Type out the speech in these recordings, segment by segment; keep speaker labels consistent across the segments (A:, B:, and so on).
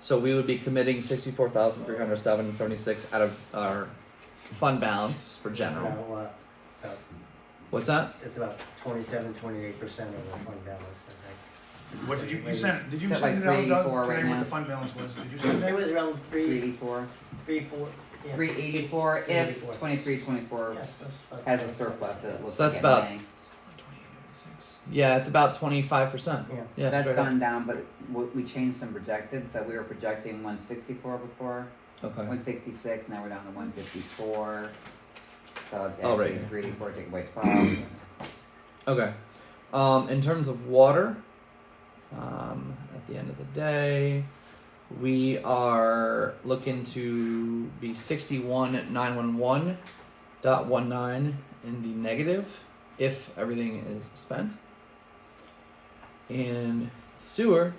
A: So we would be committing sixty-four thousand three hundred seven and seventy-six out of our fund balance for
B: It's
A: general.
B: about what? About-
A: What's that?
B: It's about twenty-seven, twenty-eight percent of the fund balance, I
C: What did you, you sent, did you
D: It's at
C: send it
D: like
C: out, Doug,
D: 384 right
C: today what
D: now.
C: the fund balance was, did you
B: think.
C: send
B: It
C: it?
B: was around
D: Three
B: three,
D: eighty-four.
B: three, four, yeah.
D: Three eighty-four if
B: 384.
D: twenty-three, twenty-four
B: Yes, that's about-
D: has a surplus that it looks
A: So
D: like
A: that's
D: it
A: about-
D: may.
A: Yeah, it's about twenty-five percent.
B: Yeah.
A: Yeah,
D: That's
A: straight up.
D: gone down, but w- we changed some projected, so we were projecting one sixty-four before,
A: Okay.
D: one sixty-six, now we're down to one fifty-four. So it's
A: Oh, right.
D: actually three eighty-four, take away twelve.
A: Okay. Um, in terms of water, um, at the end of the day, we are looking to be sixty-one nine one one dot one nine in the negative if everything is spent. And sewer,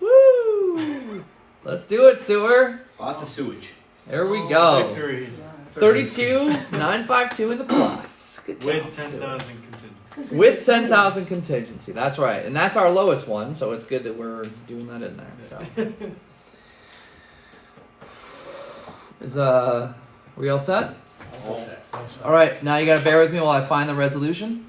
A: woo! Let's do it, sewer.
E: Lots of sewage.
A: There we go.
F: Victory
A: Thirty-two nine five two in the plus. Good job,
F: with ten
A: sewer
F: thousand contingency.
A: with 10,000 contingency. That's right. And that's our lowest one, so it's good that we're doing that in there. So Is uh we all set?
E: All set.
A: All right, now you got to bear with me while I find the resolution.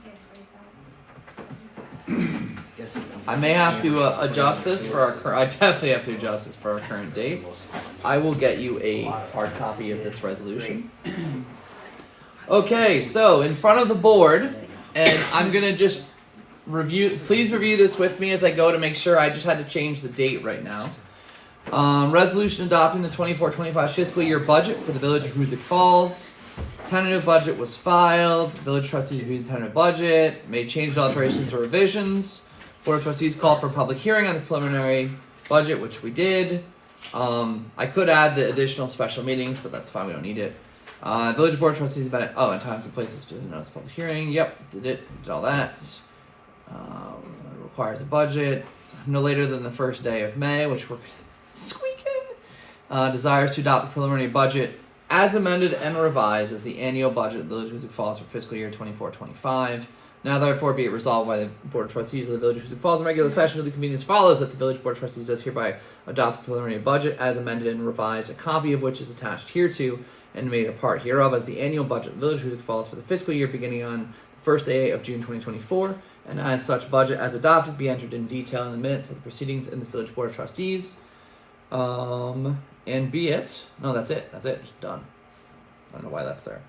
E: Guess it-
A: I may have to uh, adjust this for our cur- I definitely have to adjust this for our current date. I will get you a hard copy of this resolution. Okay, so in front of the board, and I'm gonna just review. Please review this with me as I go to make sure. I just had to change the date right now. Um, resolution adopting the 24-25 fiscal year budget for the village of Hoosick Falls. Tentative budget was filed. Village trustees reviewed the tentative budget, made changes, alterations, or revisions. Board of trustees called for a public hearing on the preliminary budget, which we did. Um, I could add the additional special meetings, but that's fine. We don't need it. Uh, village board of trustees about oh, and times and places specific notice of public hearing. Yep, did it. Did all that. Um, requires a budget no later than the first day of May, which we're squeaking. Uh, desires to adopt the preliminary budget as amended and revised as the annual budget of the Village of Hoosick Falls for fiscal year 24-25. Now therefore be it resolved by the Board of Trustees of the Village of Hoosick Falls in regular session of the convening as follows that the Village Board of Trustees does hereby adopt the preliminary budget as amended and revised, a copy of which is attached hereto and made a part hereof as the annual budget of the Village of Hoosick Falls for the fiscal year beginning on the first day of June 2024 and as such budget as adopted be entered in detail in the minutes of the proceedings in this village board of trustees um and be it no that's it that's it it's done i don't know why that's there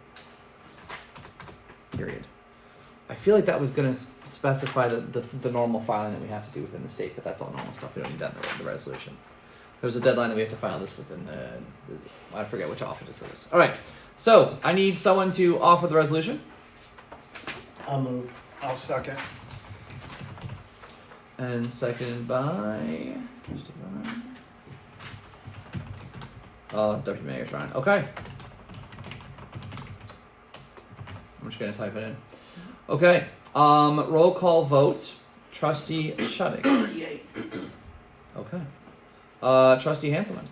A: period i feel like that was going to specify the, the the normal filing that we have to do within the state but that's all normal stuff we don't need that in the, the resolution there's a deadline that we have to file this within the, the i forget which office it is all right so i need someone to offer the resolution
B: I'll move.
C: I'll second.
A: And seconded by. Trustee Ryan. Oh, Deputy Mayor Ryan. Okay. I'm just gonna type it in. Okay. Um, roll call vote. Trustee Shutting. Okay. Uh, Trustee Hanselman.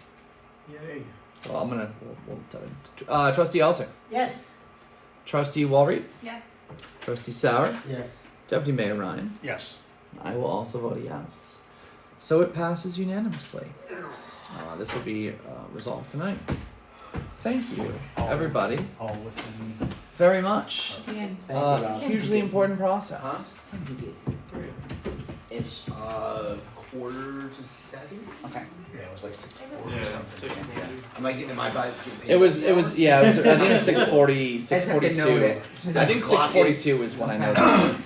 C: Yay.
A: Well, I'm gonna. We'll, we'll type it. Uh, Trustee Alter.
D: Yes.
A: Trustee Walry.
D: Yes.
A: Trustee Sauer.
B: Yes.
A: Deputy Mayor Ryan.
C: Yes.
A: I will also vote yes. So it passes unanimously. Uh, this will be uh, resolved tonight. Thank you, everybody,
C: All within.
A: very much.
D: Dan.
B: Thank you,
A: Uh,
B: Rob.
A: hugely important process.
D: Ish.
E: Uh, quarter to seven?
D: Okay.
C: Yeah, it was like six
F: Yeah,
C: four or something.
F: six more.
E: Yeah. Am I getting, am I by- getting paid?
A: It was. It was. Yeah. It was, I think it was six forty.
D: I
A: Six
D: just have to note
A: forty-two.
D: it.
A: I think six forty-two is when I noticed. it.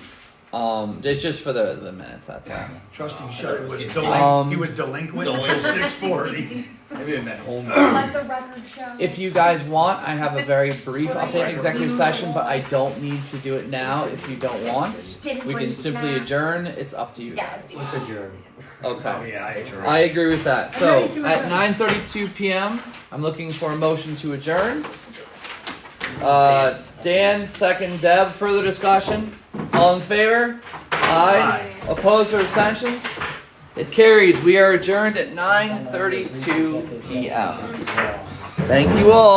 A: Um, it's just for the the minutes. That's all.
C: Trustee
E: Shutter
C: Shutter was
E: was
A: Um,
C: delinquent, he was delinquent until six forty.
E: Maybe I'm at home.
G: Let the record show.
A: If you guys want, I have a very brief update in executive session, but I don't need to do it now. If you don't want,
G: Didn't
A: we
G: bring
A: can simply
G: snacks.
A: adjourn. It's up to you.
G: Yeah,
A: guys.
G: it's-
B: Let's adjourn.
A: Okay.
C: Yeah, I agree.
A: I agree with that. So at 9:32 p.m., I'm looking for a motion to adjourn. Uh, Dan, second. Deb, further discussion. All in favor? Aye. Opposed or abstentions? It carries. We are adjourned at 9:32 p.m. Thank you all.